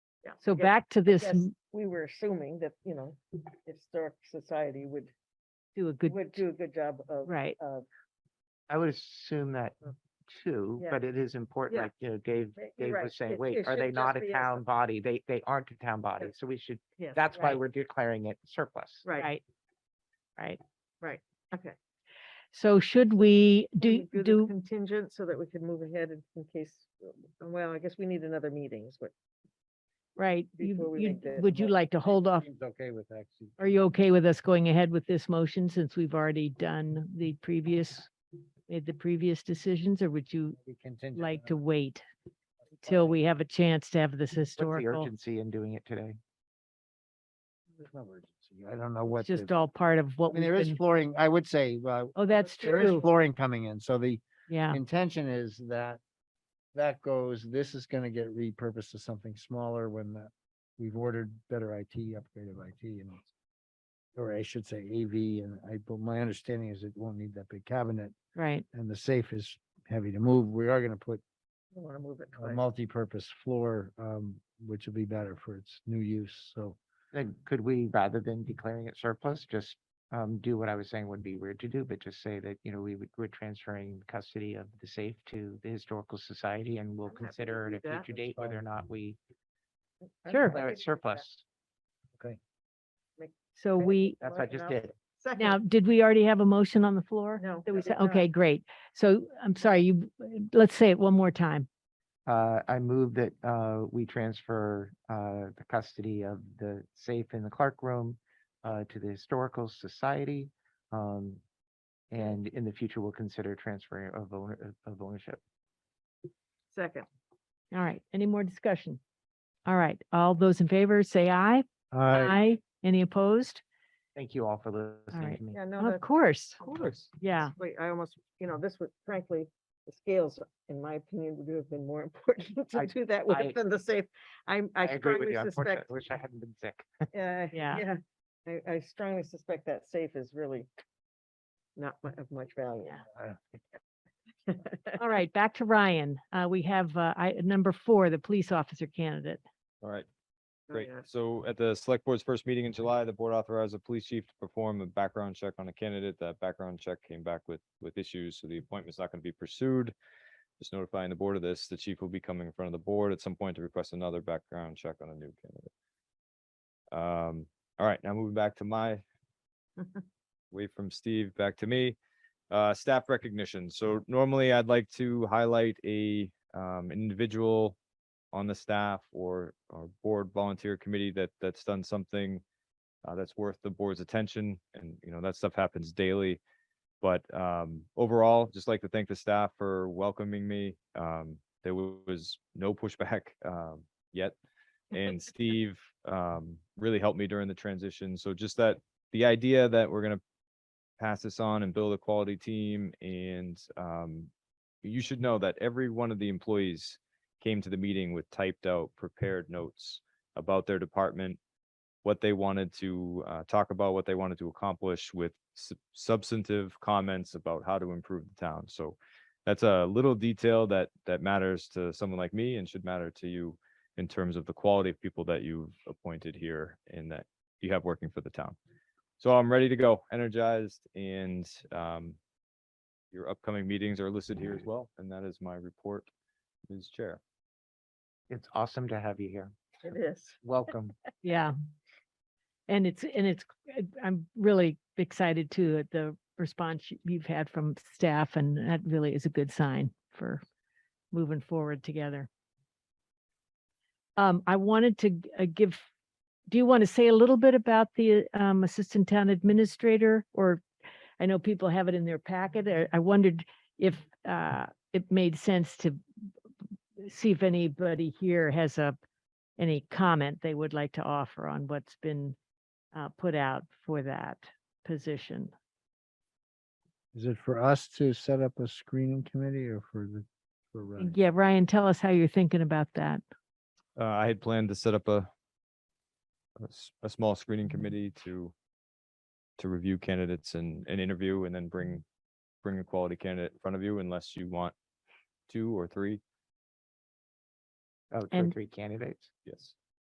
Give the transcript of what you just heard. Yeah. So Yeah, back to I this, guess m- We were assuming that, you know, Historic Society would, do a good, would do a good job of. right, of- I would assume that too, Mm. Yeah. but it is important, Yeah. like, you know, Dave, But you're Dave right, was saying, it- wait, it are they should not just a be us. town body? They, they aren't a town body, so we should, Yes, that's why right, we're declaring it surplus. Right, right. Right. okay. So should we, Can do, we this do, Contingent so that we could move ahead in- in case, uh, well, I guess we need another meeting is what. right, before you, we you, make the would you motion, like to hold off? Okay with actually. Are you okay with us going ahead with this motion since we've already done the previous, made the previous decisions, or would you like to wait till we have a chance to have this What's the historical? urgency in doing it today? There's no urgency. I don't know what. It's just all part of I what mean, we've there is been, flooring, I would say, uh, oh, that's there is true, flooring coming in, so the yeah, intention is that that goes, this is gonna get repurposed to something smaller when the, we've ordered better IT, upgraded IT and it's- or I should say AV, and I, but my understanding is it won't need that big cabinet right, and the safe is heavy to move. We are gonna put I want to move it a twice. multi-purpose floor, um, which will be better for its new use, so. Then could we, rather than declaring it surplus, just um do what I was saying would be weird to do, but just say that, you know, we would, we're transferring custody of the safe to the historical society and we'll I'm happy to consider at do a that. future date whether or not we I think we Sure. declare can do it that. surplus. so we, That's what I just did. Second. now, did we already have a motion on the floor? No, That we we said, did not. okay, great, so, I'm sorry, you, let's say it one more time, Uh, I move that uh we transfer uh the custody of the safe in the Clark Room uh to the Historical Society. Um, and in the future, we'll consider transferring of owner, of ownership. Second. all right, any more discussion? All right, all those in favor, say aye, aye, any opposed? Thank you all for listening right. to me. Yeah, no, Of that's, course, course. yeah. wait, I almost, you know, this was frankly, the scales, in my opinion, would have been more important to I- do that I- with than the safe. I'm, I I agree with strongly you. Unfortunately, suspect. uh, I wish I hadn't been sick. Yeah. Yeah. I, I strongly suspect that safe is really not mu- of much value. Yeah. Uh, All right, back to Ryan. Uh, we have, uh, I, number four, the police officer candidate. All right, Oh, great. yeah. Mm-hmm. So at the select board's first meeting in July, the board authorized the police chief to perform a background check on a candidate. That background check came back with, with issues, so the appointment's not going to be pursued. Just notifying the board of this, the chief will be coming in front of the board at some point to request another background check on a new candidate. Um, all right, now moving back to my way from Steve, back to me. Uh, staff recognition. So normally I'd like to highlight a, um, individual on the staff or, or board volunteer committee that, that's done something uh, that's worth the board's attention. And, you know, that stuff happens daily. But, um, overall, just like to thank the staff for welcoming me. Um, there wa- was no pushback, um, yet. And Steve, um, really helped me during the transition. So just that, the idea that we're gonna pass this on and build a quality team and, um, you should know that every one of the employees came to the meeting with typed out prepared notes about their department, what they wanted to uh, talk about, what they wanted to accomplish with sub- substantive comments about how to improve the town. So that's a little detail that that matters to someone like me and should matter to you in terms of the quality of people that you've appointed here and that you have working for the town. So I'm ready to go, energized and um your upcoming meetings are listed here as well, and that is my report, Ms. Chair. It's awesome to have you here. It is. Welcome. Yeah. And it's, and it's, I- I'm really excited too at the response you- you've had from staff and that really is a good sign for moving forward together. Um, I wanted to g- uh, give, do you want to say a little bit about the um, Assistant Town Administrator? Or I know people have it in their packet. uh, I wondered if uh, it made sense to see if anybody here has a any comment they would like to offer on what's been uh, put out for that position. Is it for us to set up a screening committee or for the, for Ryan? Yeah, Ryan, tell us how you're thinking about that. Uh, I had planned to set up a a s- a small screening committee to to review candidates and, and interview and then bring bring a quality candidate in front of you unless you want two or three. Oh, two or And- uh, three candidates. Yes.